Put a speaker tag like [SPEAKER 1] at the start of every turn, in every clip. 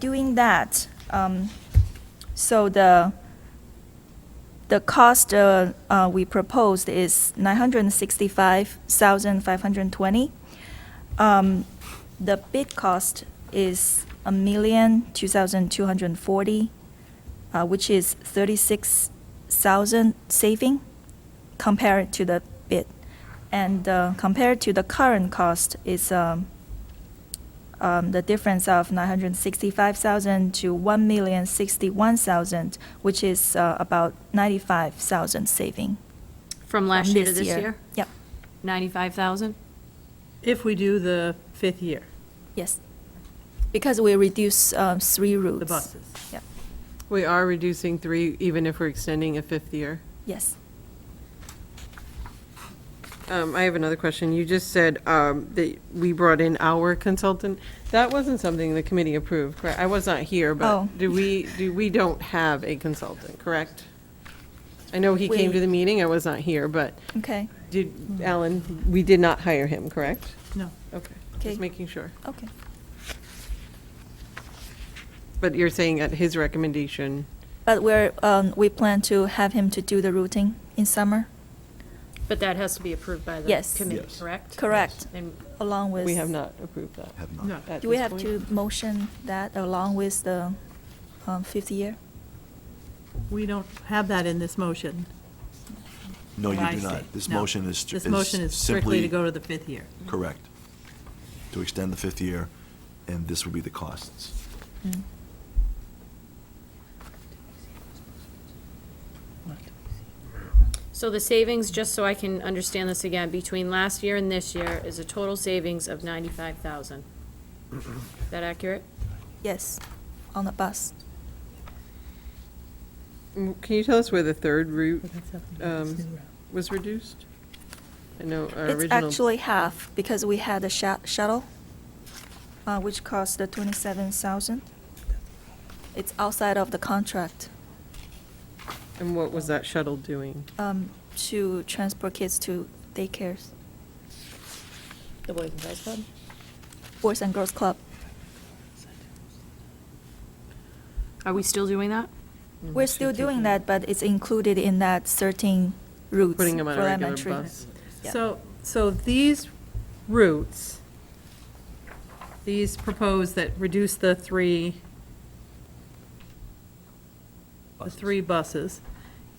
[SPEAKER 1] doing that, um, so the, the cost uh, uh, we proposed is 965,520. Um, The bid cost is a million two thousand two hundred forty, uh, which is 36,000 saving compared to the bid. And uh, compared to the current cost is um, um, the difference of 965,000 to 1,061,000, which is uh, about 95,000 saving.
[SPEAKER 2] From
[SPEAKER 1] from
[SPEAKER 2] last year to this year?
[SPEAKER 1] Yep,
[SPEAKER 2] 95,000?
[SPEAKER 3] If we do the fifth year,
[SPEAKER 1] yes. Because we reduce um, three routes.
[SPEAKER 3] the buses.
[SPEAKER 1] Yep,
[SPEAKER 3] We are reducing three, even if we're extending a fifth year.
[SPEAKER 1] yes.
[SPEAKER 3] Um, I have another question. You just said, um, that we brought in our consultant. That wasn't something the committee approved, correct? I was not here,
[SPEAKER 1] Oh.
[SPEAKER 3] but do we, do, we don't have a consultant, correct? I know he came
[SPEAKER 1] We-
[SPEAKER 3] to the meeting, I was not here, but
[SPEAKER 1] Okay,
[SPEAKER 3] did, Alan, we did not hire him, correct?
[SPEAKER 4] No.
[SPEAKER 3] Okay,
[SPEAKER 1] Okay.
[SPEAKER 3] just making sure.
[SPEAKER 1] okay.
[SPEAKER 3] But you're saying at his recommendation,
[SPEAKER 1] But we're, um, we plan to have him to do the routing in summer,
[SPEAKER 2] But that has to be approved by the
[SPEAKER 1] Yes.
[SPEAKER 2] committee,
[SPEAKER 5] Yes.
[SPEAKER 2] correct?
[SPEAKER 1] Correct.
[SPEAKER 2] And
[SPEAKER 1] along with.
[SPEAKER 3] we have not approved that.
[SPEAKER 5] Have
[SPEAKER 4] No.
[SPEAKER 5] not.
[SPEAKER 3] at
[SPEAKER 1] Do we
[SPEAKER 3] this
[SPEAKER 1] have
[SPEAKER 3] point.
[SPEAKER 1] to motion that along with the um, fifth year?
[SPEAKER 4] We don't have that in this motion.
[SPEAKER 5] No, you
[SPEAKER 4] what I
[SPEAKER 5] do
[SPEAKER 4] see.
[SPEAKER 5] not. This
[SPEAKER 4] No.
[SPEAKER 5] motion is.
[SPEAKER 4] This motion is strictly to go to the fifth year.
[SPEAKER 5] Correct. To extend the fifth year, and this would be the costs.
[SPEAKER 3] Mm.
[SPEAKER 2] So the savings, just so I can understand this again, between last year and this year is a total savings of 95,000. Is that accurate?
[SPEAKER 1] Yes, on the bus.
[SPEAKER 3] Mm, Can you tell us where the third route um, was reduced? I know our
[SPEAKER 1] It's
[SPEAKER 3] original.
[SPEAKER 1] actually half because we had a shu- shuttle, uh, which cost the twenty-seven thousand. It's outside of the contract
[SPEAKER 3] And what was that shuttle doing?
[SPEAKER 1] um, to transport kids to daycares,
[SPEAKER 2] The Boys and Girls Club?
[SPEAKER 1] Boys and Girls Club.
[SPEAKER 3] Mm,
[SPEAKER 2] Are we still doing that?
[SPEAKER 1] We're still doing that, but it's included in that certain routes for
[SPEAKER 3] Putting them on a regular
[SPEAKER 1] elementary.
[SPEAKER 3] bus?
[SPEAKER 1] Yeah.
[SPEAKER 4] So, so these routes, these proposed that reduce the three, the three buses,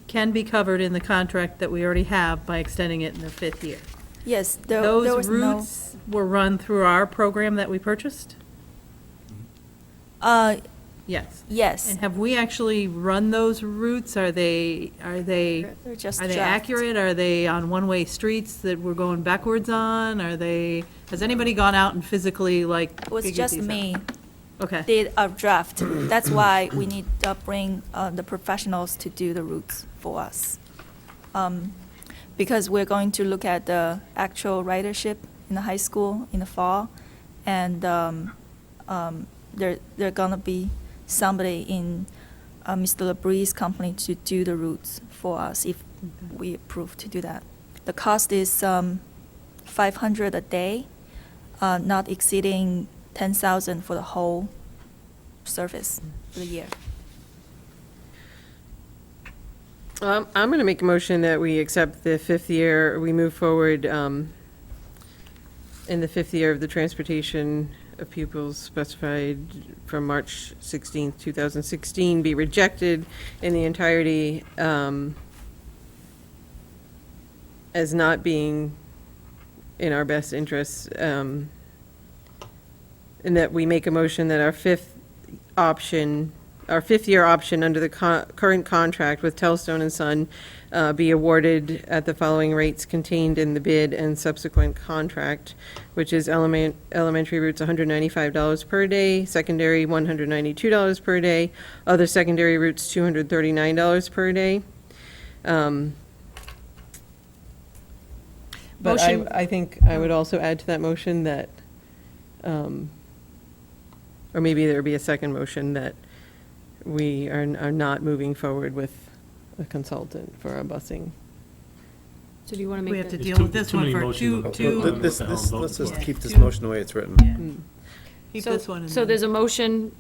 [SPEAKER 4] can be covered in the contract that we already have by extending it in the fifth year.
[SPEAKER 1] Yes, there there
[SPEAKER 4] Those
[SPEAKER 1] was no,
[SPEAKER 4] routes were run through our program that we purchased?
[SPEAKER 5] Mm-hmm.
[SPEAKER 1] uh,
[SPEAKER 4] Yes.
[SPEAKER 1] yes.
[SPEAKER 4] And have we actually run those routes? Are they, are they,
[SPEAKER 1] They're just
[SPEAKER 4] are they
[SPEAKER 1] draft.
[SPEAKER 4] accurate? Are they on one-way streets that we're going backwards on? Are they, has anybody gone out and physically, like,
[SPEAKER 1] It was
[SPEAKER 4] figured
[SPEAKER 1] just
[SPEAKER 4] these out?
[SPEAKER 1] me
[SPEAKER 4] Okay.
[SPEAKER 1] did a draft. That's why we need to bring uh, the professionals to do the routes for us. Um, Because we're going to look at the actual ridership in the high school in the fall, and um, um, there, there gonna be somebody in uh, Mr. LeBree's company to do the routes for us if we approve to do that. The cost is um, 500 a day, uh, not exceeding 10,000 for the whole service for the year.
[SPEAKER 3] Um, I'm going to make a motion that we accept the fifth year, we move forward um, in the fifth year of the transportation of pupils specified from March 16th, 2016, be rejected in the entirety um, as not being in our best interests, um, and that we make a motion that our fifth option, our fifth-year option under the co- current contract with Telstone and Son uh, be awarded at the following rates contained in the bid and subsequent contract, which is element, elementary routes $195 per day, secondary $192 per day, other secondary routes $239 per day. Um, But I,
[SPEAKER 4] Motion-
[SPEAKER 3] I think I would also add to that motion that um, Or maybe there'd be a second motion that we are, are not moving forward with a consultant for our busing.
[SPEAKER 2] So do you want to
[SPEAKER 4] We
[SPEAKER 2] make
[SPEAKER 4] have to
[SPEAKER 2] that?
[SPEAKER 4] deal
[SPEAKER 6] too-
[SPEAKER 4] with this
[SPEAKER 6] too
[SPEAKER 4] one
[SPEAKER 6] many
[SPEAKER 4] for
[SPEAKER 6] motions
[SPEAKER 4] two,
[SPEAKER 6] on
[SPEAKER 4] two,
[SPEAKER 6] the-
[SPEAKER 7] This,
[SPEAKER 6] what hell
[SPEAKER 7] this,
[SPEAKER 6] vote
[SPEAKER 7] let's
[SPEAKER 6] is
[SPEAKER 7] just
[SPEAKER 6] that?
[SPEAKER 7] keep this
[SPEAKER 4] Yeah.
[SPEAKER 7] motion the way it's written.
[SPEAKER 4] keep
[SPEAKER 2] So-
[SPEAKER 4] this one. and
[SPEAKER 2] So
[SPEAKER 4] then-
[SPEAKER 2] there's a motion